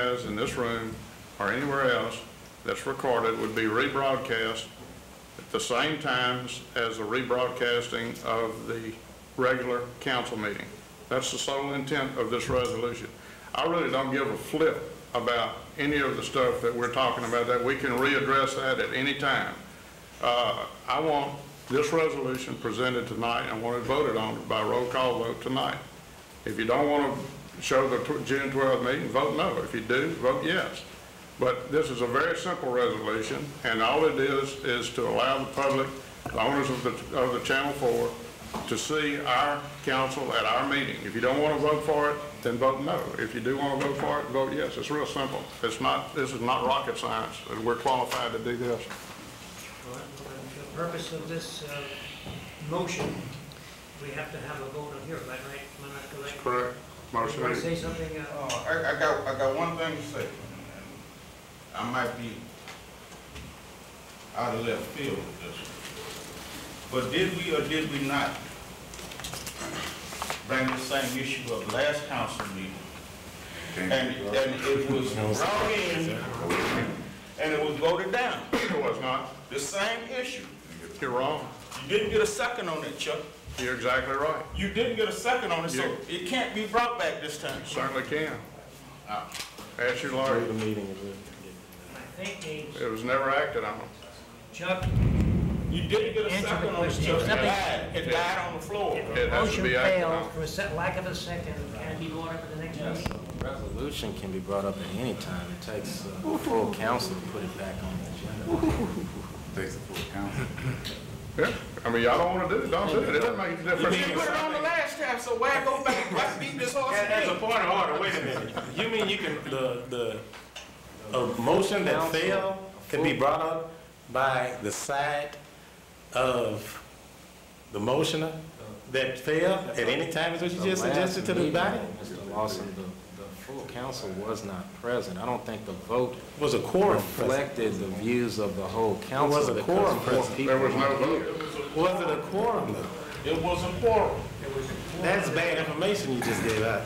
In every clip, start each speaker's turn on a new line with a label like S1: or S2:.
S1: has in this room or anywhere else that's recorded would be rebroadcast at the same times as the rebroadcasting of the regular council meeting. That's the sole intent of this resolution. I really don't give a flip about any of the stuff that we're talking about, that we can readdress that at any time. Uh, I want this resolution presented tonight, I want it voted on by roll call vote tonight. If you don't want to show the tw- June 12 meeting, vote no. If you do, vote yes. But this is a very simple resolution, and all it is, is to allow the public, the owners of the, of the Channel 4, to see our council at our meeting. If you don't want to vote for it, then vote no. If you do want to vote for it, vote yes. It's real simple. It's not, this is not rocket science, and we're qualified to do this.
S2: All right, well, then, The purpose of this uh, motion, we have to have a vote on here, am I right? Am I not correct?
S1: Correct. Motion
S2: Want to
S1: is
S2: say something? uh,
S3: Uh, I, I got, I got one thing to say. I might be out of left field with this. But did we or did we not bring the same issue up last council meeting? And, and it was brought in, and it was voted down,
S1: It was not.
S3: the same issue.
S1: You're wrong.
S3: You didn't get a second on it, Chuck.
S1: You're exactly right.
S3: You didn't get a second on it, so
S1: Yeah.
S3: it can't be brought back this time.
S1: Certainly can.
S3: Uh,
S1: Ask your
S4: During
S1: lawyer.
S4: the meeting, it will.
S2: I think the
S1: It was never acted on.
S2: Chuck,
S3: You didn't get a
S2: Answer the
S3: second on it,
S2: question.
S3: Chuck. It
S2: Nothing.
S3: died, it died on the floor.
S1: It has to
S5: Motion
S1: be acted on.
S5: failed.
S2: for a se- lack of a second, can it be brought up at the next meeting?
S4: Resolution can be brought up at any time. It takes uh, full council to put it back on the agenda.
S6: Takes the full council.
S1: Yeah, I mean, y'all don't wanna do it, don't do it, it doesn't make a
S3: You
S1: difference.
S3: didn't put it on the last time, so why go back, why beat this horse again?
S7: Point of order, wait a minute. You mean you can, the, the, a motion that failed can be brought up by the side of the motioner that failed at any time, is what you
S4: The
S7: just
S4: last
S7: suggested to the
S4: meeting,
S7: body?
S4: Mr. Lawson, the, the full council was not present. I don't think the vote
S7: Was a quorum present?
S4: reflected the views of the whole council.
S7: was a
S4: because
S7: quorum
S4: four
S7: present.
S4: people
S1: There was no vote.
S7: Was it a quorum though?
S3: It wasn't quorum.
S7: That's bad information you just gave out.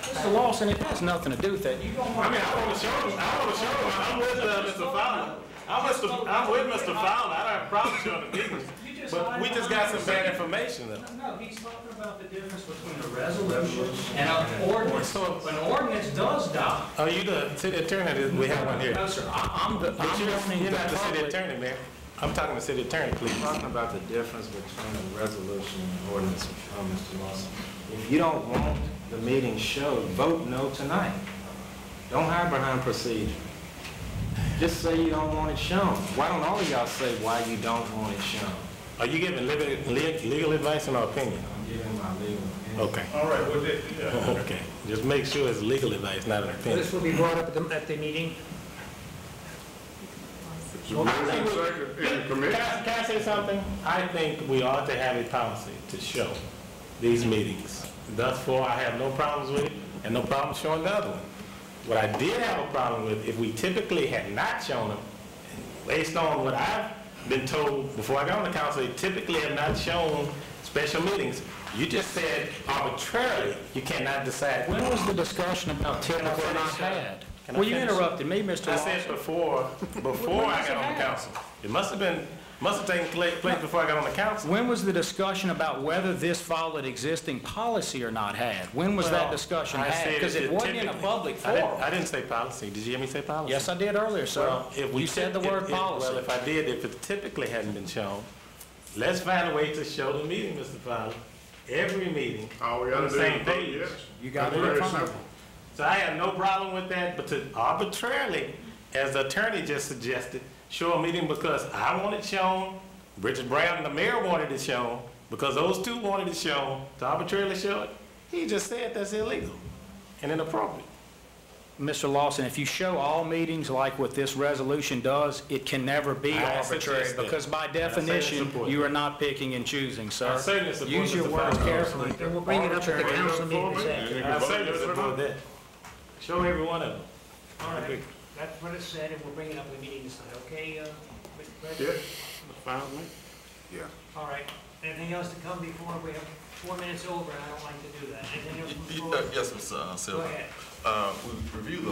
S5: Mr. Lawson, it has nothing to do with that. You don't
S7: I
S5: want,
S7: mean, I wanna show them, I wanna show them, I'm with, uh, Mr. Fowler. I'm with, Mr. I'm with Mr. Fowler, I don't have a problem showing the difference. But we just got some bad information though.
S2: No, he's talking about the difference between a resolution and an ordinance. So an ordinance does die.
S7: Oh, you the city attorney, that we have one here.
S2: No, sir, I-
S5: I'm the,
S7: But
S5: I'm
S7: you,
S5: wanting
S7: you're
S5: the
S7: not the city
S5: public.
S7: attorney, man. I'm talking to city attorney, please.
S4: Talking about the difference between a resolution and an ordinance, uh, Mr. Lawson. If you don't want the meeting showed, vote no tonight. Don't hide behind procedure. Just say you don't want it shown. Why don't all of y'all say why you don't want it shown?
S7: Are you giving legal, legal advice and opinion?
S4: I'm giving my legal opinion.
S7: Okay,
S3: All right, well, that, yeah.
S7: okay. Just make sure it's legal advice, not an opinion.
S2: This will be brought up at the, at the meeting.
S1: It's a moving second in the
S7: Can
S1: committee.
S7: I, can I say something? I think we ought to have a policy to show these meetings. Thus far, I have no problems with it, and no problem showing the other one. What I did have a problem with, if we typically had not shown them, based on what I've been told before I got on the council, they typically have not shown special meetings. You just said arbitrarily, you cannot decide.
S5: When was the discussion about
S7: Can I
S5: typical not
S7: finish, uh,
S5: had?
S7: can I
S5: Well, you
S7: finish?
S5: interrupted me, Mr.
S7: I
S5: Lawson.
S7: said before, before I got on the council. It must have been, must have taken pla- place before I got on the council.
S5: When was the discussion about whether this followed existing policy or not had? When was that
S7: Well,
S5: discussion
S7: I
S5: had?
S7: said
S5: Because it
S7: should
S5: wasn't in a
S7: typically-
S5: public
S7: I didn't-
S5: forum.
S7: I didn't say policy. Did you hear me say policy?
S5: Yes, I did earlier, sir.
S7: Well, if we
S5: You said the
S7: typ- if-
S5: word
S7: if- Well,
S5: policy.
S7: if I did, if it typically hadn't been shown, let's find a way to show the meeting, Mr. Fowler. Every meeting.
S1: All we gotta
S7: on the
S1: do
S7: same
S1: is vote
S7: page.
S1: yes.
S5: You got
S1: It's
S5: it
S1: very
S5: in front of
S1: simple.
S7: So I have no problem with that, but to arbitrarily, as the attorney just suggested, show a meeting because I want it shown, Richard Brown, the mayor wanted it shown, because those two wanted it shown, to arbitrarily show it, he just said that's illegal and inappropriate.
S5: you. Mr. Lawson, if you show all meetings like what this resolution does, it can never be
S7: I
S5: arbitrary
S7: suggest that.
S5: because by
S7: I certainly
S5: definition,
S7: support
S5: you are not picking and choosing, sir.
S7: certainly support
S5: Use your
S7: Mr.
S5: words
S7: Fowler.
S5: carefully.
S2: Then we'll bring it up at the
S1: Bring it up for
S2: council meeting.
S1: me,
S2: this
S1: and
S2: afternoon.
S1: you
S7: I
S1: can vote
S7: certainly
S1: yes or
S7: support
S1: no.
S7: that. Show every one of them.
S2: All right,
S7: agree.
S2: that's what it said, and we'll bring it up in the meeting tonight, okay, uh, Mr.
S1: Yeah,
S2: President?
S1: fine with me.
S6: Yeah.
S2: All right, anything else to come before, we have four minutes over, and I don't like to do that. Anything else
S8: Y-
S2: before?
S8: y- uh, Yes, Mr.
S2: Go
S8: Silver.
S2: ahead.
S8: Uh, We reviewed the